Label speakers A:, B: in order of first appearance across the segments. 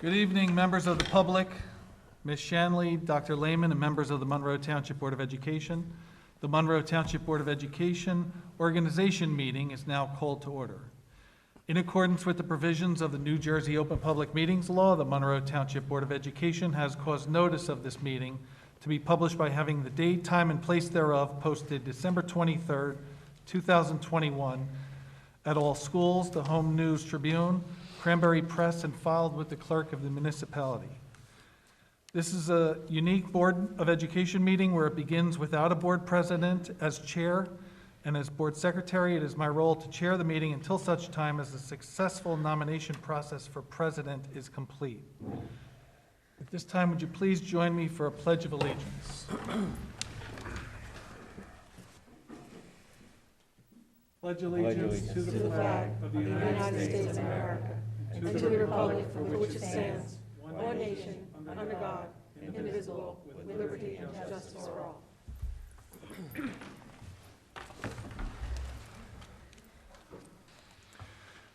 A: Good evening, members of the public, Ms. Shanley, Dr. Lehman, and members of the Monroe Township Board of Education. The Monroe Township Board of Education Organization Meeting is now called to order. In accordance with the provisions of the New Jersey Open Public Meetings Law, the Monroe Township Board of Education has caused notice of this meeting to be published by having the date, time, and place thereof posted December 23rd, 2021, at all schools, the Home News Tribune, Cranberry Press, and filed with the clerk of the municipality. This is a unique Board of Education meeting where it begins without a board president as chair, and as board secretary, it is my role to chair the meeting until such time as the successful nomination process for president is complete. At this time, would you please join me for a pledge of allegiance? Pledge allegiance to the flag of the United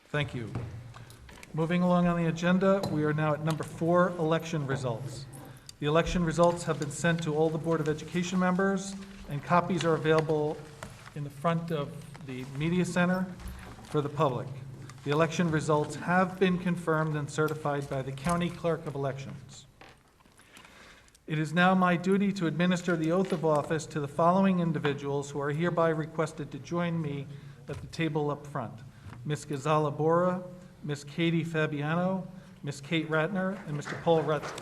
A: Thank you. Moving along on the agenda, we are now at number four, election results. The election results have been sent to all the Board of Education members, and copies are available in the front of the media center for the public. The election results have been confirmed and certified by the County Clerk of Elections. It is now my duty to administer the oath of office to the following individuals who are hereby requested to join me at the table up front. Ms. Gazala Bora, Ms. Katie Fabiano, Ms. Kate Ratner, and Mr. Paul Rutsky.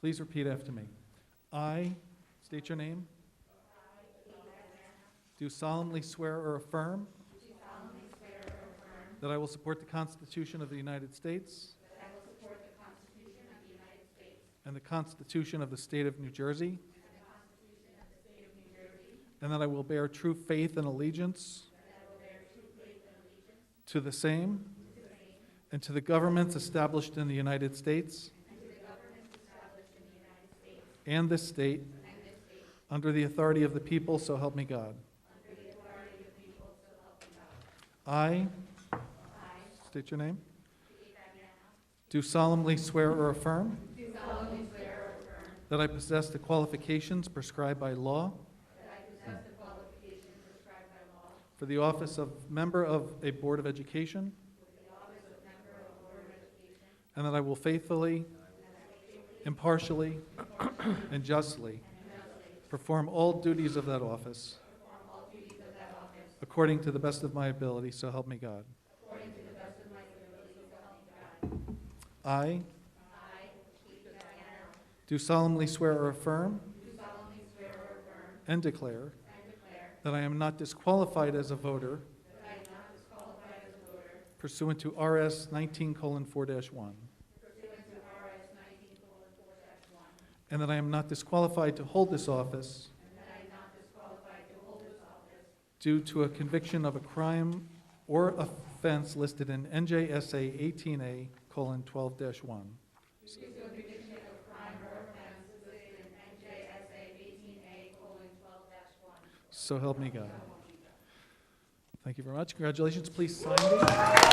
A: Please repeat after me. I, state your name. Do solemnly swear or affirm. That I will support the Constitution of the United States. And the Constitution of the State of New Jersey. And that I will bear true faith and allegiance. To the same. And to the governments established in the United States. And this state. Under the authority of the people, so help me God. I. State your name. Do solemnly swear or affirm. That I possess the qualifications prescribed by law. For the office of member of a Board of Education. And that I will faithfully. Impartially. And justly. Perform all duties of that office. According to the best of my ability, so help me God. I. Do solemnly swear or affirm. And declare. That I am not disqualified as a voter. Pursuant to RS nineteen colon four dash one. And that I am not disqualified to hold this office. Due to a conviction of a crime or offense listed in NJSA 18A: colon 12-1. Due to a conviction of a crime or offense listed in NJSA 18A: colon 12-1. So help me God. Thank you very much. Congratulations. Please sign these.